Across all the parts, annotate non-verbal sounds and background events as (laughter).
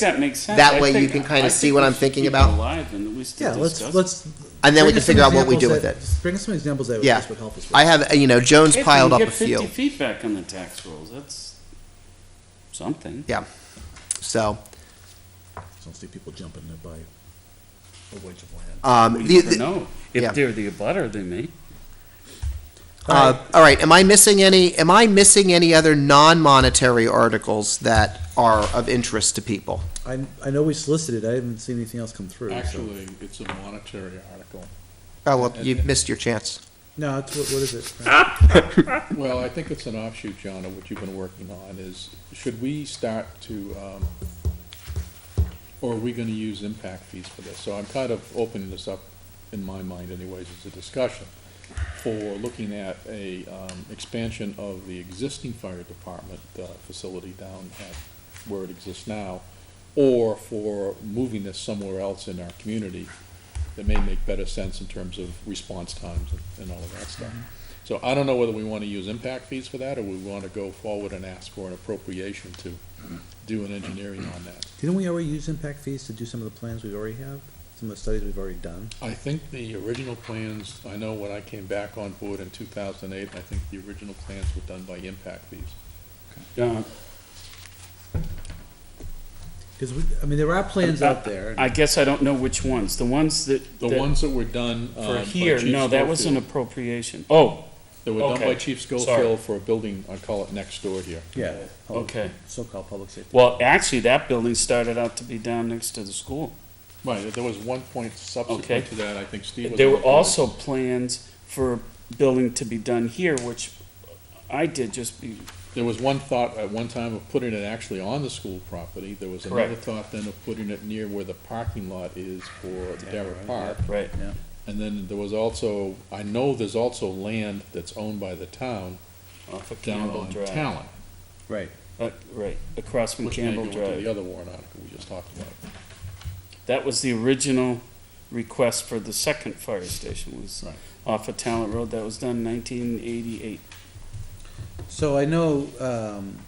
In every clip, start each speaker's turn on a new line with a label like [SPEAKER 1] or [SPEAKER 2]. [SPEAKER 1] That makes sense.
[SPEAKER 2] That
[SPEAKER 1] I
[SPEAKER 2] way you
[SPEAKER 1] think-
[SPEAKER 2] can kinda
[SPEAKER 1] I
[SPEAKER 2] see
[SPEAKER 1] think
[SPEAKER 2] what
[SPEAKER 1] we
[SPEAKER 2] I'm
[SPEAKER 1] should
[SPEAKER 2] thinking
[SPEAKER 1] keep it
[SPEAKER 2] about.
[SPEAKER 1] alive and that we still
[SPEAKER 3] Yeah, let's,
[SPEAKER 1] discuss it.
[SPEAKER 3] let's.
[SPEAKER 2] And then we
[SPEAKER 3] bring
[SPEAKER 2] can
[SPEAKER 3] us some
[SPEAKER 2] figure out what we do
[SPEAKER 3] examples
[SPEAKER 2] with it.
[SPEAKER 3] that- Bring us some examples that
[SPEAKER 2] Yeah.
[SPEAKER 3] this would help us with.
[SPEAKER 2] I have, uh, you know, Jones
[SPEAKER 1] If we
[SPEAKER 2] piled
[SPEAKER 1] can
[SPEAKER 2] up a few.
[SPEAKER 1] Get fifty feet back on the tax rolls, that's something.
[SPEAKER 2] So,
[SPEAKER 3] Don't see people jumping to buy a wedge of land.
[SPEAKER 2] um,
[SPEAKER 1] We
[SPEAKER 2] the,
[SPEAKER 1] never
[SPEAKER 2] the,
[SPEAKER 1] know.
[SPEAKER 2] yeah.
[SPEAKER 1] If they're the abutter, they may.
[SPEAKER 2] uh, all right. Am I missing any? Am I missing any other non-monetary articles that are of interest to people?
[SPEAKER 3] I, I know we solicited, I haven't seen anything else come through, so-
[SPEAKER 4] Actually, it's a monetary article.
[SPEAKER 2] Oh well, you missed your chance.
[SPEAKER 3] No, it's, what, what is
[SPEAKER 1] (laughs)
[SPEAKER 3] it?
[SPEAKER 4] Well, I think it's an offshoot, John, of what you've been working on, is should we start to, um, or are we gonna use impact fees for this? So I'm kind of opening this up, in my mind anyways, as a discussion for looking at a, um, expansion of the existing fire department, uh, facility down at where it exists now, or for moving this somewhere else in our community that may make better sense in terms of response times and- and all of that stuff. So I don't know whether we want to use impact fees for that, or we want to go forward and ask for an appropriation to do an engineering on that.
[SPEAKER 3] Didn't we already use impact fees to do some of the plans we already have? Some of the studies we've already done?
[SPEAKER 4] I think the original plans, I know when I came back on board in two thousand and eight, I think the original plans were done by impact fees.
[SPEAKER 1] Uh,
[SPEAKER 3] Because we, I mean, there are plans out there.
[SPEAKER 1] I guess I don't know which ones. The ones that.
[SPEAKER 4] The
[SPEAKER 1] that-
[SPEAKER 4] ones that were done, um,
[SPEAKER 1] For
[SPEAKER 4] by
[SPEAKER 1] here,
[SPEAKER 4] Chief
[SPEAKER 1] no, that was an
[SPEAKER 4] Schofield-
[SPEAKER 1] appropriation. Oh,
[SPEAKER 4] That were done
[SPEAKER 1] okay,
[SPEAKER 4] by Chief Schofield for a building, I call it next door here.
[SPEAKER 3] Yeah. public-
[SPEAKER 1] Okay.
[SPEAKER 3] So-called public safety.
[SPEAKER 1] well, actually, that building started out to be down next to the school.
[SPEAKER 4] Right, there was one point
[SPEAKER 1] Okay.
[SPEAKER 4] subsequent to that, I think Steve was.
[SPEAKER 1] There
[SPEAKER 4] on
[SPEAKER 1] were
[SPEAKER 4] the board.
[SPEAKER 1] also plans for building to be done here, which I did just be,
[SPEAKER 4] There was one thought at one time of putting it actually on the school property. There was another
[SPEAKER 1] Correct.
[SPEAKER 4] thought then of putting it near where the parking lot is for Darrah Park.
[SPEAKER 1] right.
[SPEAKER 4] And then there was also, I know there's also land that's owned by the town
[SPEAKER 1] Off of
[SPEAKER 4] down
[SPEAKER 1] Campbell
[SPEAKER 4] on
[SPEAKER 1] Drive.
[SPEAKER 4] Talon.
[SPEAKER 3] Right.
[SPEAKER 1] Uh, Right, across from
[SPEAKER 4] Which may go
[SPEAKER 1] Campbell
[SPEAKER 4] into the
[SPEAKER 1] Drive.
[SPEAKER 4] other warrant article we just
[SPEAKER 1] (laughs)
[SPEAKER 4] talked about.
[SPEAKER 1] That was the original request for the second fire station was
[SPEAKER 4] Right.
[SPEAKER 1] off of Talent Road. That was done nineteen eighty-eight.
[SPEAKER 3] So I know, um,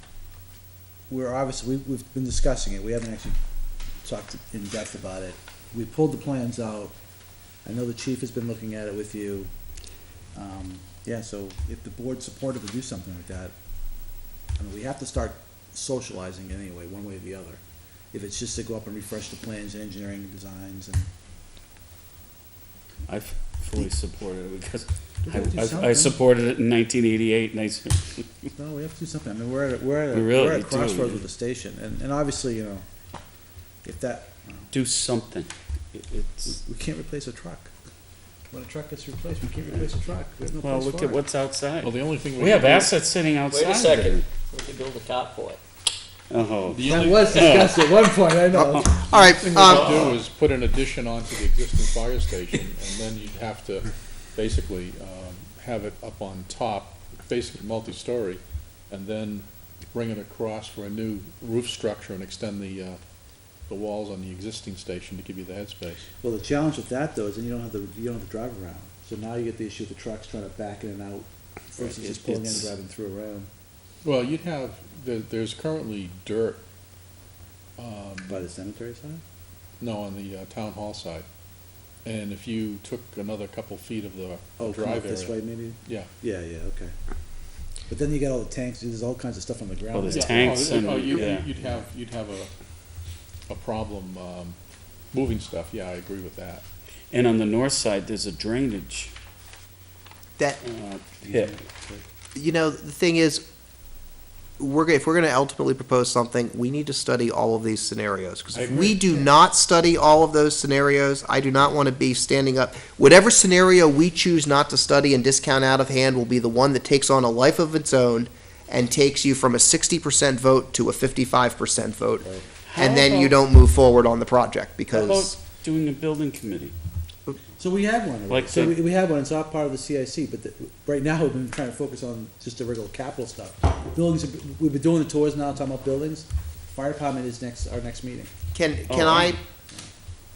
[SPEAKER 3] we're obviously, we, we've been discussing it, we haven't actually talked in depth about it. We pulled the plans out, I know the chief has been looking at it with you. Um, yeah, so if the board's supportive to do something like that, I mean, we have to start socializing anyway, one way or the other. If it's just to go up and refresh the plans and engineering and designs and,
[SPEAKER 1] I f- fully supported it because
[SPEAKER 3] We gotta do
[SPEAKER 1] I- I, I
[SPEAKER 3] something.
[SPEAKER 1] supported it in nineteen eighty-eight and I s-
[SPEAKER 3] No, we have to do something. I mean, we're at, a- we're at, a-
[SPEAKER 1] We really
[SPEAKER 3] we're at a
[SPEAKER 1] do,
[SPEAKER 3] crossroads
[SPEAKER 1] yeah.
[SPEAKER 3] with the station, and, and obviously, you know, if that,
[SPEAKER 1] do something. It- It's,
[SPEAKER 3] we can't replace a truck. When a truck gets replaced, we can't replace a truck. We have no
[SPEAKER 1] well,
[SPEAKER 3] place
[SPEAKER 1] look
[SPEAKER 3] for
[SPEAKER 1] at
[SPEAKER 3] it.
[SPEAKER 1] what's outside.
[SPEAKER 4] Well, the only thing.
[SPEAKER 1] We have
[SPEAKER 4] can do-
[SPEAKER 1] assets sitting outside.
[SPEAKER 5] Wait a second, we could build a top for it.
[SPEAKER 1] Oh,
[SPEAKER 4] The
[SPEAKER 3] That
[SPEAKER 4] only
[SPEAKER 3] was discussed at one point, I know.
[SPEAKER 2] All right.
[SPEAKER 4] thing we
[SPEAKER 2] Um,
[SPEAKER 4] could do is put an addition onto the existing fire station and then you'd have to basically, um, have it up on top, basically multi-story, and then bring it across for a new roof structure and extend the, uh, the walls on the existing station to give you the headspace.
[SPEAKER 3] Well, the challenge with that though is then you don't have the, you don't have the drive around. So now you get the issue of the trucks trying to back in and out versus
[SPEAKER 1] Right,
[SPEAKER 3] just
[SPEAKER 1] it-
[SPEAKER 3] pulling in and
[SPEAKER 1] it's-
[SPEAKER 3] driving through around
[SPEAKER 4] Well, you'd have, there, there's currently dirt, um,
[SPEAKER 3] by the cemetery side.
[SPEAKER 4] no, on the uh, town hall side. And if you took another couple feet of the
[SPEAKER 3] Oh, come up
[SPEAKER 4] drive
[SPEAKER 3] this
[SPEAKER 4] area,
[SPEAKER 3] way maybe?
[SPEAKER 4] yeah.
[SPEAKER 3] Yeah, yeah, okay. But then you got all the tanks, there's all kinds of stuff on the ground.
[SPEAKER 1] Oh, there's
[SPEAKER 4] Yeah, oh,
[SPEAKER 1] tanks
[SPEAKER 4] oh,
[SPEAKER 1] and-
[SPEAKER 4] you-
[SPEAKER 1] yeah.
[SPEAKER 4] You'd have, you'd have a, a problem, um, moving stuff, yeah, I agree with that.
[SPEAKER 1] and on the north side, there's a drainage,
[SPEAKER 2] that
[SPEAKER 1] uh, pit.
[SPEAKER 2] you know the thing is we're go- if we're going to ultimately propose something we need to study all of these scenarios because
[SPEAKER 4] I
[SPEAKER 2] if
[SPEAKER 4] agree.
[SPEAKER 2] we do not study all of those scenarios i do not want to be standing up whatever scenario we choose not to study and discount out of hand will be the one that takes on a life of its own and takes you from a 60% vote to a 55% vote and then you don't move forward on the project
[SPEAKER 1] How
[SPEAKER 2] because
[SPEAKER 1] about doing a building committee?
[SPEAKER 3] So we have one.
[SPEAKER 1] Like
[SPEAKER 3] so
[SPEAKER 1] the-
[SPEAKER 3] we, we have one. It's not part of the CIC, but the, right now (laughs) we've been trying to focus on just the regular capital stuff. Buildings. We've been doing the tours now, talking about buildings. Fire department is next our next meeting.
[SPEAKER 2] can can
[SPEAKER 1] Oh,
[SPEAKER 2] i
[SPEAKER 3] And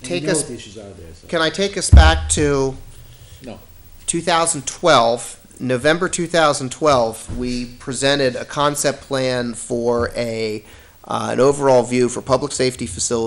[SPEAKER 2] Take
[SPEAKER 3] we know
[SPEAKER 2] us-
[SPEAKER 3] what the issues are there. So.
[SPEAKER 2] can i take us back to
[SPEAKER 4] No,
[SPEAKER 2] 2012, November 2012, we presented a concept plan for a uh, an overall view for public safety facilities